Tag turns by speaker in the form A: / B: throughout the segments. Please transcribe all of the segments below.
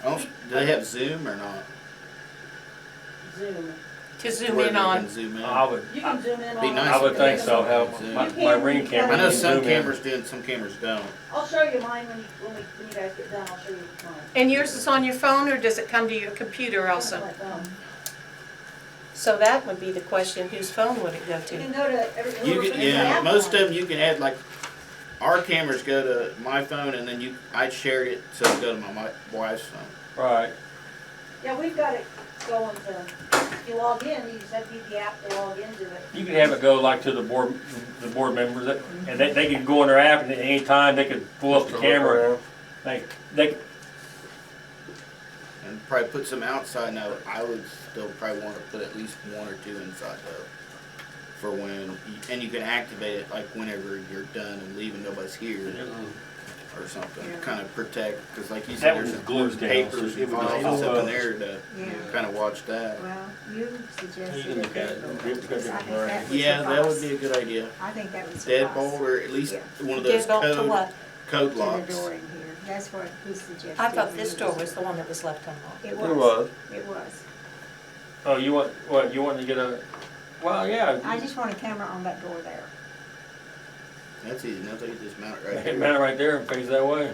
A: I don't, Oh, do they have Zoom or not?
B: Zoom.
C: to zoom
A: Where
C: in
A: they can
C: on.
A: Zoom in.
D: I would,
B: You
D: I
B: can zoom in on.
A: Be nice
D: I would
A: if
D: think
A: they
D: so,
A: zoom
D: how,
A: in.
D: my, my ring camera.
A: I know
D: can
A: some
D: zoom in.
A: cameras do and some cameras don't.
B: I'll show you mine when you, when we, when you guys get done, I'll show you mine.
C: And yours is on your phone or does it come to your computer also?
B: My phone.
C: So that would be the question, whose phone would it go
B: You
C: to?
B: can go to every.
A: You
B: whoever-
A: can, yeah,
B: every
A: most of
B: app
A: them you can add like, our cameras go to my phone and then you, I shared it, so it go to my, my wife's phone.
D: Right,
B: on. Yeah, we've got it going to, if you log in, you just have to use the app to log into it.
D: you could have it go like to the board, the board members, that- and they, they could go on their app and at any time they could pull up the camera. They, they,
A: And probably put some outside now, I would still probably wanna put at least one or two inside though. For when, and you can activate it like whenever you're done and leaving, nobody's here or something,
C: Yeah.
A: kinda protect, cause like you
D: That
A: said, there's
D: was
A: important
D: glued down, so
A: papers
D: she
A: and
D: would just
A: files up
D: hold
A: in
D: up.
A: there to
E: Yeah,
A: kinda watch that.
E: well, you suggested.
D: You can look at it.
E: that,
D: Give- give
E: because
D: it a
E: I think
D: break.
E: that would
A: Yeah, that would
E: suffice.
A: be a good idea.
E: I think that would
A: Deadbolt
E: suffice.
A: or at least one of those
C: Deadbolt to
A: code,
C: what?
A: code
E: To the
A: locks.
E: door in here, that's what he suggested.
C: I thought this door was the one that was left unlocked.
E: It
F: It
E: was,
F: was.
E: it was.
D: oh, you want, what, you want to get a, well, yeah.
E: I just want a camera on that door there.
A: That's easy enough, they can just mount it right
D: Hit
A: here.
D: mount right there and face that way.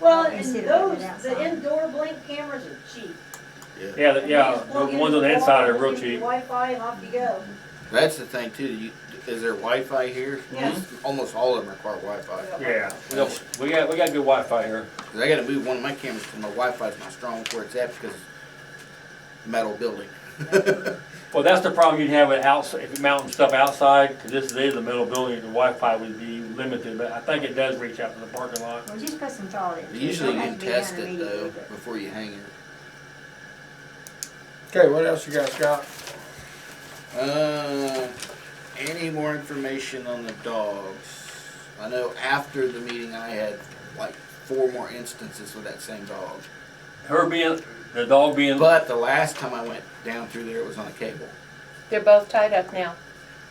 B: Well, and
E: Instead of
B: those,
E: having it
B: the
E: outside.
B: indoor blink cameras are cheap.
A: Yeah,
D: Yeah, the-
B: And you
D: yeah,
B: just
D: the
B: plug in
D: ones on the
B: your
D: inside are
B: phone,
D: real
B: use your
D: cheap.
B: Wi-Fi and off you go.
A: that's the thing too, you, is there Wi-Fi here?
B: Yeah.
A: Almost all of them require Wi-Fi.
D: Yeah, we got, we got, we got good Wi-Fi here.
A: Cause I gotta move one of my cameras because my Wi-Fi's not strong where it's at because metal building.
D: Well, that's the problem you'd have with outside, if you mounting stuff outside, because this is the middle building, the Wi-Fi would be limited, but I think it does reach out to the parking lot.
E: Well, just put some thought into it.
A: Usually you
E: Don't
A: can
E: have to be
A: test
E: done
A: it though
E: immediately, but-
A: before you hang it.
F: Okay, what else you guys got?
A: Uh, any more information on the dogs? I know after the meeting I had like four more instances with that same dog.
D: Her being, the dog being,
A: But the last time I went down through there, it was on a cable.
C: They're both tied up now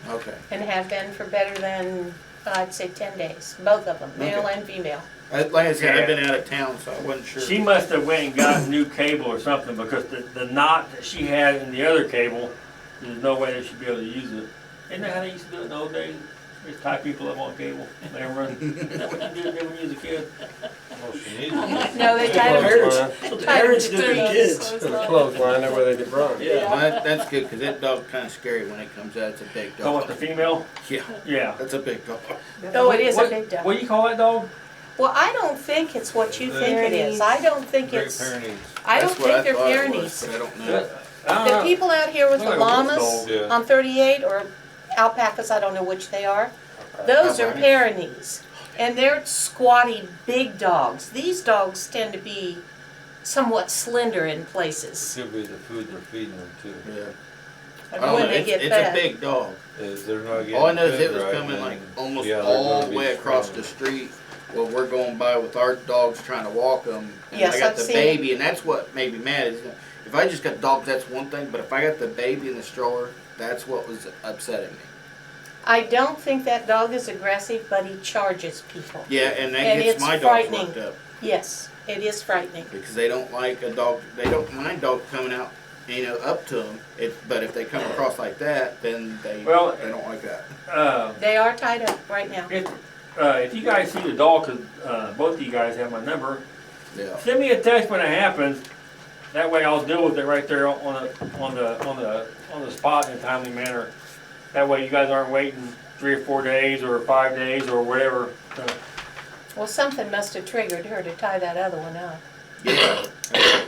A: Okay.
C: and have been for better than, I'd say, ten days, both of them, male
A: Okay.
C: and female.
A: I- Uh, Like I said, I've been out of town, so I wasn't sure.
D: she must have went and got new cable or something, because the, the knot that she had in the other cable, there's no way they should be able to use it. Isn't that how they used to do it in the old days? Just tie people up on cable, and they run, is that what you did when you was a kid?
C: No, they tied them.
F: Parents do to kids. To the clothesline, that way they get run.
A: Well, that- That's good, cause that dog's kinda scary when it comes out. It's a big
D: Oh, with the
A: dog.
D: female?
A: Yeah,
D: Yeah.
A: that's a big dog.
C: Oh, it is a
D: What-
C: big
D: What
C: dog.
D: do you call that dog?
C: Well, I don't think it's what you think it is. I don't think it's, I don't
A: That's what
C: think they're
A: thought it was,
C: Pyrenees.
A: But I don't know.
D: That- I
C: The
D: don't know.
C: people out here with the
D: Look like a wolf
C: llamas
D: dog.
F: Yeah.
C: on thirty-eight or alpacas, I don't know which they are, those are Pyrenees. And they're squatty, big dogs. These dogs tend to be somewhat slender in places
G: Could be the food they're feeding them too.
A: Yeah. I don't know,
C: when they
A: it's,
C: get
A: it's a
C: fed.
A: big dog.
G: Is Uh, they're not getting.
A: All I know is
G: food
A: it was
G: right,
A: coming
G: and
A: like
G: then-
A: almost
G: yeah, they're
A: all
G: gonna
A: the
G: be
A: way across the
G: struggling.
A: street. Well, we're going by with our dogs trying to walk them, and
C: Yes,
A: I got
C: I've
A: the
C: seen
A: baby, and that's what made me mad. Is that if I just got dogs, that's one thing, but if I got the baby in the stroller, that's what was upsetting me.
C: I don't think that dog is aggressive, but he charges people.
A: Yeah, and that
C: And
A: gets
C: it's
A: my dogs
C: frightening.
A: worked up
C: Yes, it is frightening.
A: because they don't like a dog. They don't mind dog coming out, you know, up to them. It, but if they come across like that, then they
D: Well,
A: they don't like that.
D: Uh,
C: They are tied up right now.
D: if, uh, if you guys see the dog, 'cause, uh, both of you guys have my number,
A: Yeah.
D: send me a text when it happens. That way I'll deal with it right there on the, on the, on the, on the spot in a timely manner. That way you guys aren't waiting three or four days or five days or whatever. Uh,
C: Well, something must have triggered her to tie that other one up.
A: Yeah.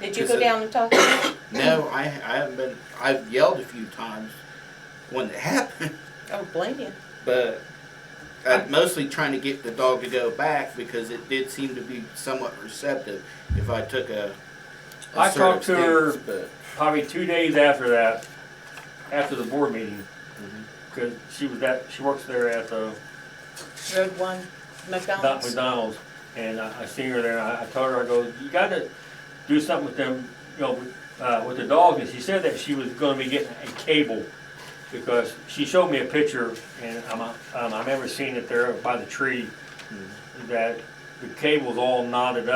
C: Did you
A: Is
C: go
A: it-
C: down and talk to her?
A: No, I I haven't been. I've yelled a few times when it happened.
C: I don't Oh, blame you.
A: but I'm mostly trying to get the dog to go back because it did seem to be somewhat receptive if I took a. a
D: I talked
A: certain
D: to her-
A: stance, but
D: probably two days after that, after the board meeting.
A: Mhm.
D: Cause she was that, she works there at the
C: Road one,
D: Not
C: McDonald's.
D: McDonald's, and I, I seen her there, and I, I told her, I go, you gotta do something with them, you know, with, uh, with the dogs, and she said that she was gonna be getting a cable, because she showed me a picture, and I'm, um, I've never seen it there by the tree, that the cable's all knotted up.